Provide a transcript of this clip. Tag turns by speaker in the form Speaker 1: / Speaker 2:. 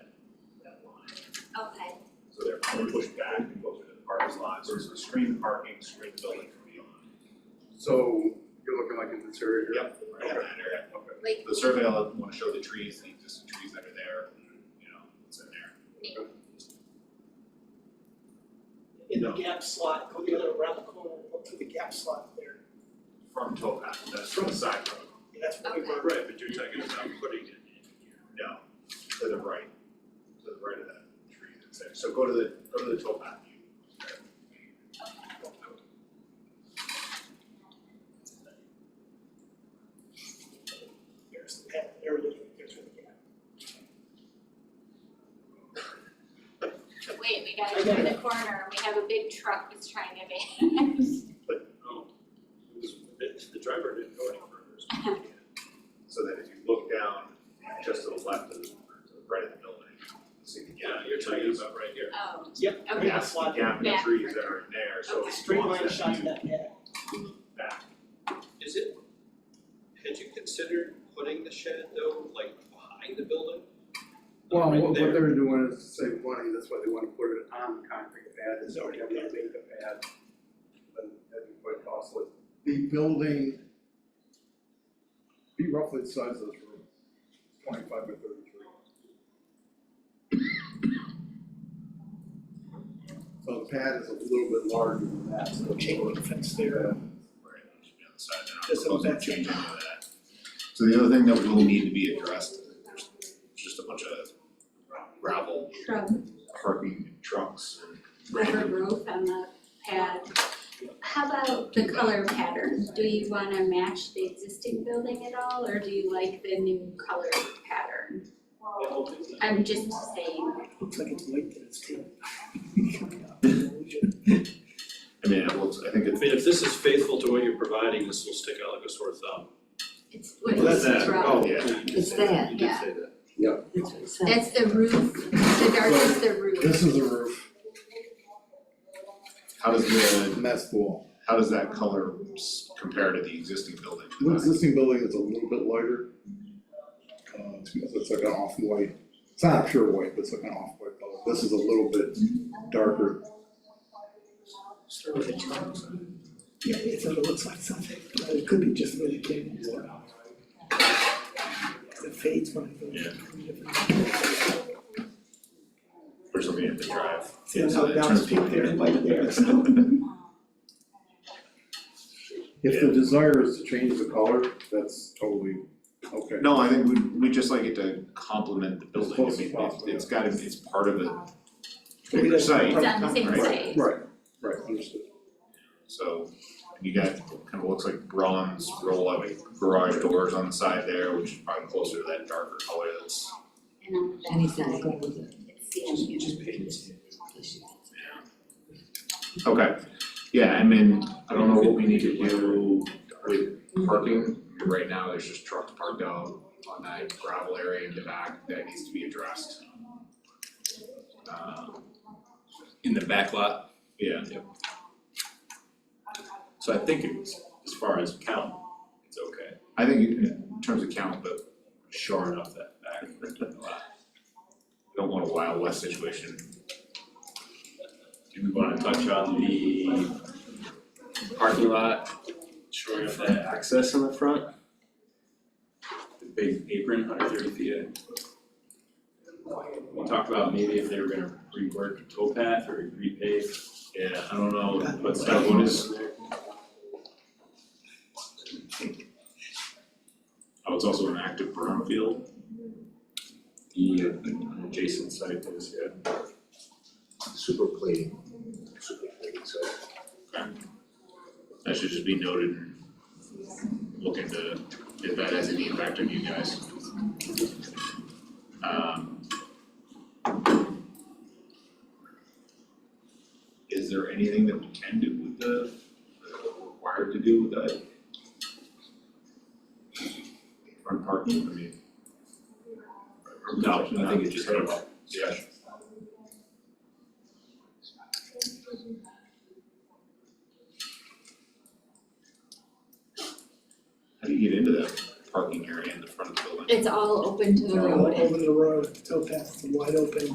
Speaker 1: push back and go through the parking lots, or screen the parking, screen the building from beyond.
Speaker 2: So you're looking like in this area here?
Speaker 1: Yep, right in that area.
Speaker 2: Okay.
Speaker 3: Like-
Speaker 1: The survey, I wanna show the trees, the existing trees that are there, you know, what's in there.
Speaker 4: in the gap slot, go the other around the corner, look through the gap slot there,
Speaker 1: From towpath, that's from the side road.
Speaker 4: and that's what we were.
Speaker 1: Right, but you're talking about putting it in here. No, to the right, to the right of that tree that's there, so go to the, go to the towpath view.
Speaker 4: There's the path, there it is, there's where the gap.
Speaker 3: Wait, we gotta turn the corner, we have a big truck that's trying to make.
Speaker 1: The driver didn't go any further. So then if you look down just to the left of the, to the right of the building, you'll see the gap.
Speaker 5: you're talking about right here.
Speaker 3: Oh,
Speaker 4: Yep.
Speaker 3: Okay.
Speaker 4: Gap
Speaker 1: That's the
Speaker 4: slot,
Speaker 1: gap in the
Speaker 3: Back.
Speaker 1: trees that are in there, so.
Speaker 3: Okay.
Speaker 4: straight line
Speaker 1: once
Speaker 4: shot to
Speaker 1: view
Speaker 4: that gap.
Speaker 1: Back,
Speaker 5: Is it, had you considered putting the shed though, like behind the building?
Speaker 2: Well,
Speaker 5: Right
Speaker 2: what what
Speaker 5: there.
Speaker 2: they're doing is to save money, that's why they wanna put it on the concrete pad, is already gonna make the pad. But that'd be quite costly. The building be roughly the size of this room, twenty-five by thirty-three. So the pad is a little bit larger than that, so.
Speaker 4: So chain link fence there.
Speaker 1: where it should be on the side, they're not
Speaker 4: Just so
Speaker 1: proposing to
Speaker 4: that's-
Speaker 1: change any of that. So the other thing that will need to be addressed, there's just a bunch of gravel
Speaker 6: From
Speaker 1: parking and trucks and
Speaker 6: rubber roof on the pad. How about the color pattern? Do you wanna match the existing building at all, or do you like the new color pattern? I'm just saying,
Speaker 4: Looks like it's linked and it's too.
Speaker 1: I mean, it looks, I think
Speaker 5: I
Speaker 1: it
Speaker 5: mean, if this is faithful to what you're providing, this will stick out like a sore thumb.
Speaker 6: it's what
Speaker 4: Well,
Speaker 6: it's
Speaker 4: that's that.
Speaker 6: from.
Speaker 1: Oh, yeah.
Speaker 7: It's that,
Speaker 5: You did
Speaker 6: Yeah.
Speaker 5: say that.
Speaker 6: That's the roof, the dark is the roof.
Speaker 2: This is the roof,
Speaker 1: How does the,
Speaker 2: and that's the wall.
Speaker 1: how does that color s- compare to the existing building?
Speaker 2: The existing building is a little bit lighter. Uh, it's- it's like an off-white, it's not a pure white, but it's like an off-white color. This is a little bit darker.
Speaker 4: Start with the trunks. Yeah, it's, it looks like something, but it could be just where the cable is. It fades when it goes.
Speaker 1: Or something in the drive.
Speaker 4: See, that's how
Speaker 1: So it
Speaker 4: down
Speaker 1: turns
Speaker 4: street
Speaker 1: people
Speaker 4: there,
Speaker 1: into
Speaker 4: like there,
Speaker 1: people.
Speaker 4: so.
Speaker 2: If the desire is to change the color, that's totally okay.
Speaker 1: No, I think we, we just like it to complement the building, I
Speaker 2: close as
Speaker 1: mean, it's,
Speaker 2: possible,
Speaker 1: it's got, it's part of a
Speaker 4: Maybe
Speaker 1: bigger
Speaker 4: that's the
Speaker 1: site,
Speaker 4: problem.
Speaker 6: It's on the same
Speaker 1: Right.
Speaker 6: site.
Speaker 2: Right, right, understood.
Speaker 1: so you got, kind of looks like bronze roll out garage doors on the side there, which is probably closer to that darker color that's,
Speaker 6: And on the back,
Speaker 7: any side.
Speaker 6: it's sand.
Speaker 1: okay. Yeah, I mean, I don't know what we need to do with parking, right now, there's just trucks parked out on that gravel area in the back that needs to be addressed. Um,
Speaker 5: In the back lot,
Speaker 1: yeah,
Speaker 5: so I think it's, as far as count, it's okay.
Speaker 1: I think in terms of count, but
Speaker 5: Short enough that back lot.
Speaker 1: don't want a Wild West situation.
Speaker 5: Do we wanna touch on the parking lot, showing up that access in the front? The big apron, hundred thirty feet in. We talked about maybe if they were gonna rework the towpath or repave,
Speaker 1: Yeah, I don't know,
Speaker 5: but
Speaker 1: what's
Speaker 5: that one is.
Speaker 1: oh, it's also an active brown field.
Speaker 5: The uh, adjacent site is, yeah.
Speaker 1: Super plating, super plating, so. That should just be noted and look into if that has any impact on you guys. Um. Is there anything that we can do with the, that we're required to do with that? Front parking, I mean.
Speaker 5: No, I think it's just kind of,
Speaker 1: Yeah. How do you get into that parking area in the front of the building?
Speaker 6: It's all open to the road,
Speaker 4: Over the road, the towpath is wide open.